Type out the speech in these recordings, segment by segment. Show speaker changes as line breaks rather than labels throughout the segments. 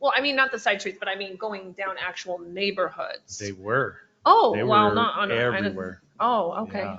Well, I mean, not the side streets, but I mean going down actual neighborhoods.
They were.
Oh,
They
well,
were
not on. I didn't-
everywhere.
Oh, okay.
Yeah.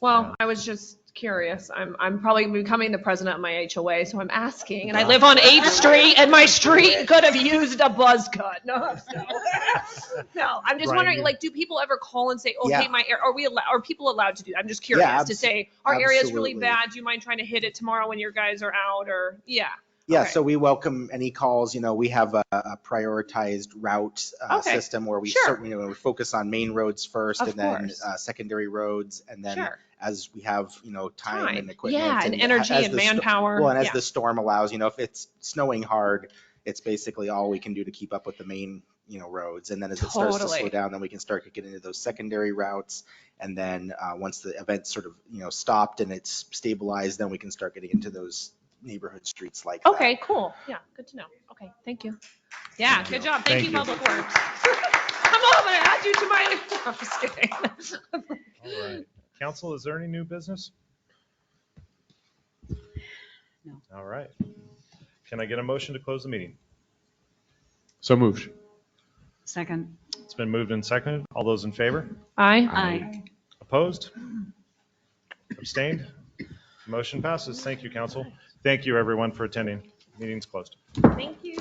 Well,
Yeah.
I was just curious. I'm, I'm probably becoming the president of my HOA, so I'm asking. And I live on 8th Street and my street could have used a buzz cut. No, I'm so- no, I'm just
Right.
wondering, like, do people ever call and say, okay,
Yeah.
my, ar- are we, allo- are people allowed to do? I'm just curious to
abs-
say, our area's really
absolutely.
bad. Do you mind trying to hit it tomorrow when your guys are out or, yeah.
Yeah,
Okay.
so we welcome any calls, you know, we have a a prioritized route uh,
Okay,
system where we
sure.
certainly, you know, we focus on main roads first
Of
and then
course.
uh, secondary roads. And then
Sure.
as we have, you know, time
Time.
and equipment.
Yeah, and
a-
energy
as
and
the sto-
manpower.
Well, and as
Yeah.
the storm allows, you know, if it's snowing hard, it's basically all we can do to keep up with the main, you know, roads. And then as it starts to slow
Totally.
down, then we can start to get into those secondary routes. And then uh, once the event's sort of, you know, stopped and it's stabilized, then we can start getting into those neighborhood streets like that.
Okay, cool. Yeah, good to know. Okay, thank you. Yeah,
Thank
good
you.
job. Thank
Thank
you,
you.
Public Works. I'm all gonna add you to my, I'm just kidding.
All right. Council, is there any new business?
No.
All right. Can I get a motion to close the meeting?
So moved.
Second.
It's been moved and seconded. All those in favor?
Aye.
Aye.
Opposed? Abstained? Motion passes. Thank you, council. Thank you, everyone, for attending. Meeting's closed.
Thank you.